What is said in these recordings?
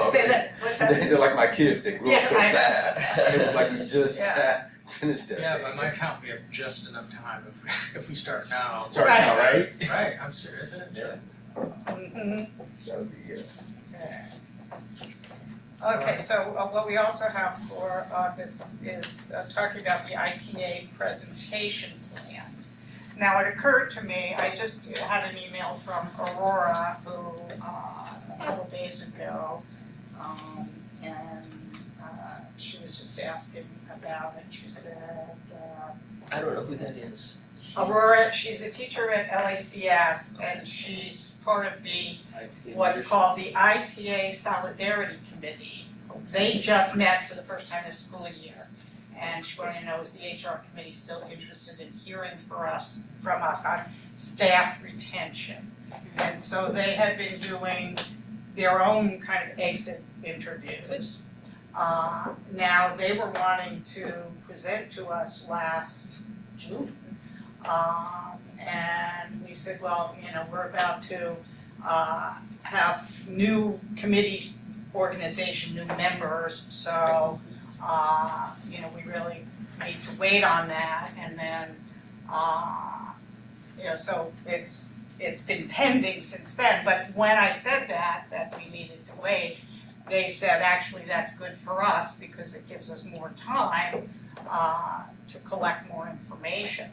Say that, what's that? Oh, They're like my kids, they grew up Yes, so I- fast. It was like we just Yeah. finished that. Yeah, by my count, we have just enough time if, if we start now. Start now, right? Right, I'm serious, isn't it? Mhm. That'll be it. Okay, so uh, what we also have for August is uh, talking about the ITA presentation plans. Now, it occurred to me, I just had an email from Aurora, who, uh, a couple days ago, um, and, uh, she was just asking about it, she said, uh, I don't know who that is. Aurora, she's a teacher at LACS and she's part of the, what's called the ITA Solidarity Committee. They just met for the first time this school year. And she wanted to know, is the HR committee still interested in hearing for us, from us on staff retention? And so they had been doing their own kind of exit interviews. Uh, now, they were wanting to present to us last June. Um, and we said, well, you know, we're about to, uh, have new committee organization, new members, so, uh, you know, we really need to wait on that, and then, uh, you know, so it's, it's been pending since then, but when I said that, that we needed to wait, they said, actually, that's good for us, because it gives us more time, uh, to collect more information.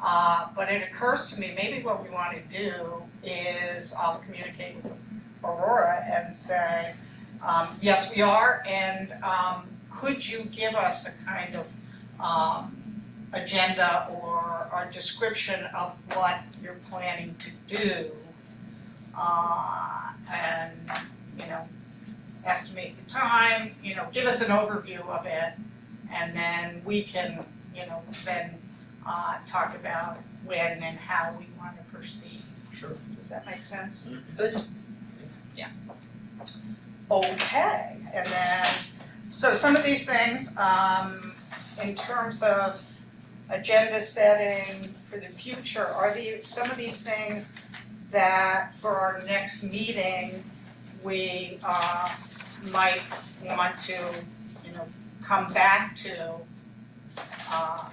Uh, but it occurs to me, maybe what we wanna do is I'll communicate with Aurora and say, um, yes, we are, and, um, could you give us a kind of, um, agenda or, or description of what you're planning to do? Uh, and, you know, estimate the time, you know, give us an overview of it, and then we can, you know, then uh, talk about when and how we want to proceed. Sure. Does that make sense? Good. Yeah. Okay, and then, so some of these things, um, in terms of agenda setting for the future, are the, some of these things that for our next meeting, we, uh, might want to, you know, come back to, uh,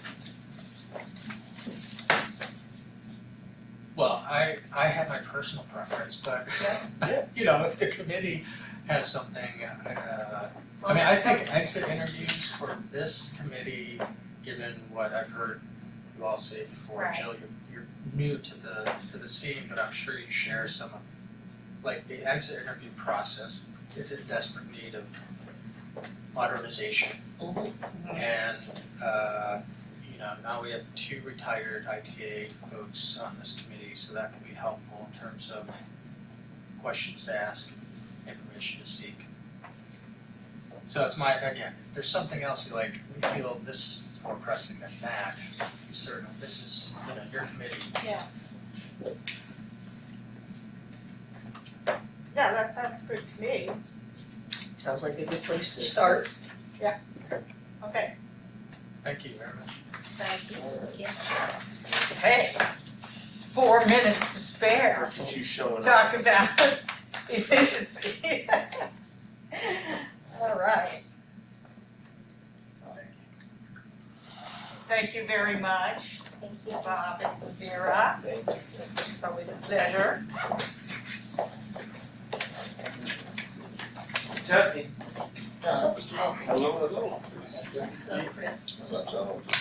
Well, I, I have my personal preference, but, Yes. you know, if the committee has something, uh, I mean, I think exit interviews for this committee, given what I've heard you all say before, Right. Jill, you're, you're new to the, to the scene, but I'm sure you share some of, like, the exit interview process is in desperate need of modernization. Mhm. And, uh, you know, now we have two retired ITA folks on this committee, so that can be helpful in terms of questions to ask, information to seek. So that's my, again, if there's something else you like, we feel this is more pressing than that, you certainly, this is, you know, your committee. yeah, that sounds good to me. Sounds like a good place to start. Yeah. Okay, Thank you very much. thank you. Hey, four minutes to spare. She's showing up. Talk about efficiency. All right. Thank you very much, Thank you. Bob and Vera. Thank you. It's always a pleasure. Jeffy. Uh, Hello, hello. so, Chris. What's up, John?